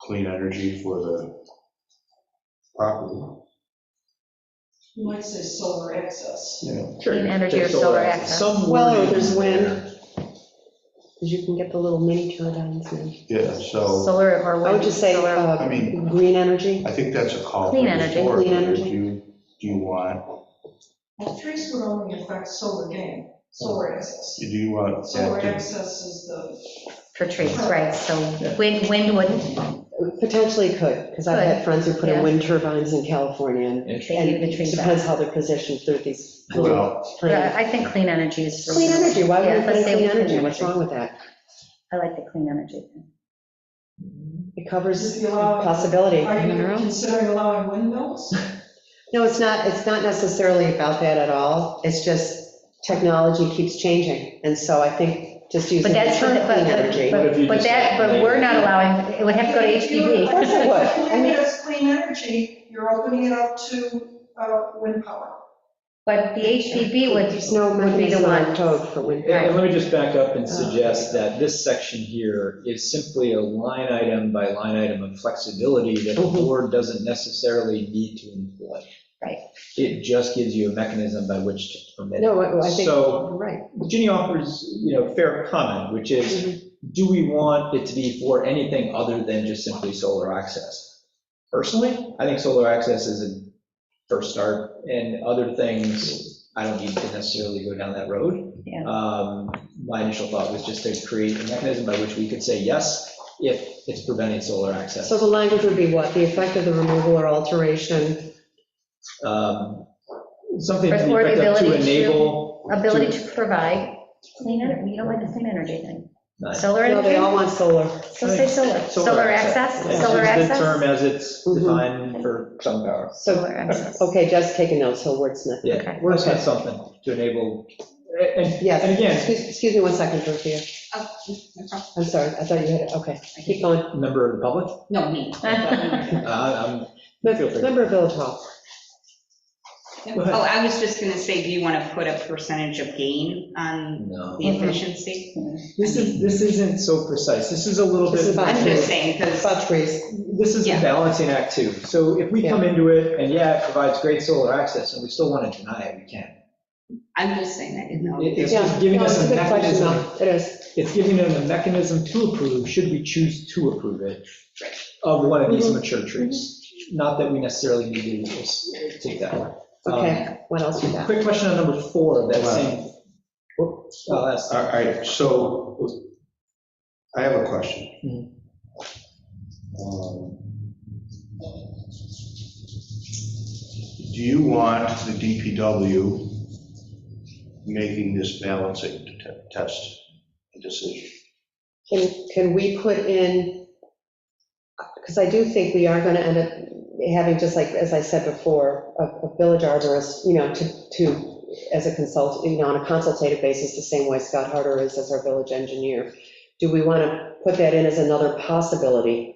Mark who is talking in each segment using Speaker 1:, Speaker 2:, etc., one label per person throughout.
Speaker 1: clean energy for the property.
Speaker 2: You might say solar excess.
Speaker 3: Clean energy or solar access.
Speaker 4: Some
Speaker 5: Well, or
Speaker 4: wording
Speaker 5: there's wind.
Speaker 4: there.
Speaker 5: Because you can get the little mini turbines now.
Speaker 1: Yeah, so
Speaker 3: Solar or
Speaker 5: I would
Speaker 3: wind,
Speaker 5: just say,
Speaker 3: solar,
Speaker 5: uh,
Speaker 1: I mean-
Speaker 5: green energy.
Speaker 1: I think that's a call.
Speaker 3: Clean
Speaker 1: for the
Speaker 3: energy,
Speaker 1: board.
Speaker 5: clean energy.
Speaker 1: Do you, do you want,
Speaker 2: Well, trees would only affect solar gain, solar excess.
Speaker 1: do you want
Speaker 2: Solar
Speaker 1: that
Speaker 2: excess is the,
Speaker 3: for trees, right, so wind, wind wouldn't,
Speaker 5: Potentially could, because I've had friends who put in wind turbines in California. and
Speaker 3: they leave the
Speaker 5: it
Speaker 3: trees
Speaker 5: Depends
Speaker 3: out.
Speaker 5: how they're positioned, they're these
Speaker 1: to,
Speaker 5: little
Speaker 1: well,
Speaker 3: But
Speaker 5: tiny.
Speaker 3: I think clean energy is.
Speaker 5: Clean energy, why
Speaker 3: Yeah,
Speaker 5: would we put
Speaker 3: let's
Speaker 5: in
Speaker 3: say
Speaker 5: clean
Speaker 3: clean
Speaker 5: energy? What's
Speaker 3: energy.
Speaker 5: wrong with that?
Speaker 3: I like the clean energy.
Speaker 5: It covers
Speaker 2: Just allow it.
Speaker 5: possibility.
Speaker 2: are you considering allowing windmills?
Speaker 5: No, it's not, it's not necessarily about that at all. It's just technology keeps changing. And so I think just using
Speaker 3: But
Speaker 5: the
Speaker 3: that's,
Speaker 5: term
Speaker 3: but,
Speaker 5: clean energy.
Speaker 4: But if you
Speaker 3: but- but
Speaker 4: just-
Speaker 3: that, but we're not allowing, it would have to go to
Speaker 2: If
Speaker 3: HPP.
Speaker 5: course it would.
Speaker 2: you
Speaker 5: I mean-
Speaker 2: leave it as clean energy, you're opening it up to uh, wind power.
Speaker 3: But the HPP would,
Speaker 5: There's no
Speaker 3: would be the
Speaker 5: mechanism on
Speaker 3: one.
Speaker 5: code for wind.
Speaker 4: And let me just back up
Speaker 3: Oh.
Speaker 4: and suggest that this section here is simply a line item by line item of flexibility that the
Speaker 5: Mhm.
Speaker 4: board doesn't necessarily need to employ.
Speaker 3: Right.
Speaker 4: It just gives you a mechanism by which to permit. it.
Speaker 5: No, I I think,
Speaker 4: So-
Speaker 5: you're right.
Speaker 4: Ginny offers, you know, fair comment, which is, do we want it to be for anything other than just simply solar access? Personally, I think solar access is a first start, and other things, I don't need to necessarily go down that road.
Speaker 3: Yeah.
Speaker 4: Um, My initial thought was just to create a mechanism by which we could say yes, if it's preventing solar access.
Speaker 5: So the language would be what? The effect of the removal or alteration,
Speaker 4: Um, Something to the
Speaker 3: Or the
Speaker 4: effect of to
Speaker 3: ability to-
Speaker 4: enable.
Speaker 3: Ability to provide clean energy, you don't like the clean energy thing.
Speaker 4: Nice.
Speaker 3: Solar
Speaker 5: no, they all
Speaker 3: energy,
Speaker 5: want solar.
Speaker 3: so say solar, solar access,
Speaker 4: That's
Speaker 3: solar
Speaker 4: just
Speaker 3: access. Mm-hmm.
Speaker 4: The term as it's
Speaker 5: Mhm.
Speaker 4: defined for sun power.
Speaker 5: So, oh,
Speaker 3: Solar access.
Speaker 5: okay, just taking notes, he'll wordsmith.
Speaker 4: Yeah,
Speaker 3: Okay.
Speaker 4: we're just something to enable, and, and
Speaker 5: Yes,
Speaker 4: again,
Speaker 5: excuse, excuse me one second, Dorothea. I'm sorry, I thought you had, it. okay, keep going.
Speaker 4: member of the public,
Speaker 6: No, me.
Speaker 4: uh, Feel free.
Speaker 5: Member of Village Hall,
Speaker 6: Oh, I was just going to say, do you want to put a percentage of gain
Speaker 4: I'm,
Speaker 6: on
Speaker 4: no.
Speaker 6: the efficiency?
Speaker 4: This is, this isn't so precise, this is a little
Speaker 5: This is
Speaker 4: bit,
Speaker 5: about-
Speaker 6: I'm just saying, because
Speaker 5: about trees.
Speaker 4: this is a
Speaker 6: Yeah.
Speaker 4: balancing act too. So if we come into it, and yeah, it provides great solar access, and we still want to deny it, we can.
Speaker 6: I'm just saying that, you know.
Speaker 4: It- It's
Speaker 5: Yeah,
Speaker 4: just giving
Speaker 5: no,
Speaker 4: us
Speaker 5: it's
Speaker 4: a
Speaker 5: good question,
Speaker 4: mechanism,
Speaker 5: though. It is.
Speaker 4: it's giving them a mechanism to approve, should we choose to approve it, of one of these mature trees. Not that we necessarily need to just take that one. Um,
Speaker 5: Okay, what else we got?
Speaker 4: Quick question on number four, of that
Speaker 1: Wow.
Speaker 4: same. whoops, I'll ask.
Speaker 1: all right, so I have a question. Um, Do you want the DPW making this balancing te- test and decision?
Speaker 5: Can, can we put in, because I do think we are going to end up having, just like, as I said before, a, a village arborist, you know, to, to, as a consult, you know, on a consultative basis, the same way Scott Harder is as our village engineer. Do we want to put that in as another possibility?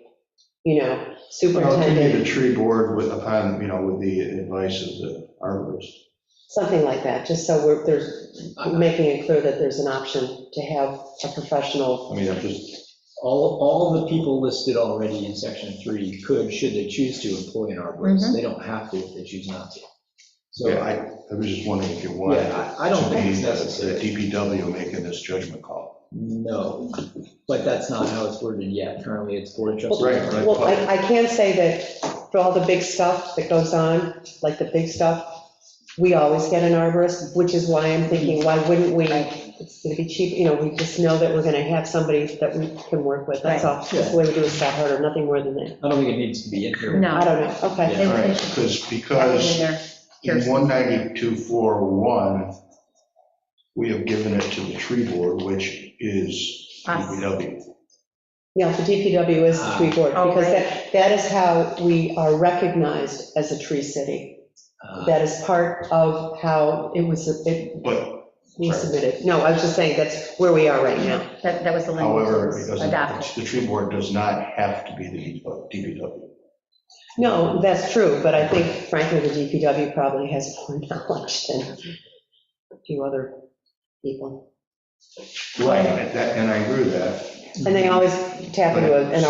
Speaker 5: You know,
Speaker 1: How can you the
Speaker 5: superintendent,
Speaker 1: tree board with, upon, you know, with the advice of the arborist?
Speaker 5: something like that, just so we're, there's,
Speaker 4: Uh,
Speaker 5: making it clear that there's an option to have a professional.
Speaker 1: I mean, I'm just,
Speaker 4: All, all the people listed already in section three could, should they choose to, employ an arborist.
Speaker 3: Mhm.
Speaker 4: They don't have to if they choose not to. So,
Speaker 1: yeah, I,
Speaker 4: yeah,
Speaker 1: I was just wondering if you want
Speaker 4: I I don't
Speaker 1: to
Speaker 4: think
Speaker 1: be
Speaker 4: it's
Speaker 1: the
Speaker 4: necessary.
Speaker 1: DPW making this judgment call.
Speaker 4: No, but that's not how it's worded yet. Currently, it's board of trustees.
Speaker 1: Right, right.
Speaker 5: Well, I, I can say that for all the big stuff that goes on, like the big stuff, we always get an arborist, which is why I'm thinking, why wouldn't we? It's gonna be cheap, you know, we just know that we're gonna have somebody that we can work with, that's all. That's the way we do it, Scott Harder, nothing more than that.
Speaker 4: I don't think it needs to be in here.
Speaker 3: No.
Speaker 5: I don't know, okay.
Speaker 4: Yeah.
Speaker 3: They
Speaker 1: All
Speaker 3: would-
Speaker 1: right,
Speaker 3: they should
Speaker 1: because,
Speaker 3: have it
Speaker 1: because
Speaker 3: in
Speaker 1: In
Speaker 3: there.
Speaker 1: 192.4.1, we have given it to the tree board, which is
Speaker 3: Us.
Speaker 1: DPW.
Speaker 5: Yeah, the DPW is the tree board,
Speaker 3: Ah, oh,
Speaker 5: because
Speaker 3: right.
Speaker 5: that, that is how we are recognized as a tree city.
Speaker 4: Uh,
Speaker 5: That is part of how it was, it
Speaker 1: But
Speaker 5: was submitted. No, I was just saying, that's where we are right now.
Speaker 3: That, that was the language that
Speaker 1: however, it
Speaker 3: was adopted.
Speaker 1: doesn't, the tree board does not have to be the DPW.
Speaker 5: No, that's true, but I think frankly, the DPW probably has more knowledge than a few other people.
Speaker 1: Right, and that- and I agree with that.
Speaker 5: And they always tap into an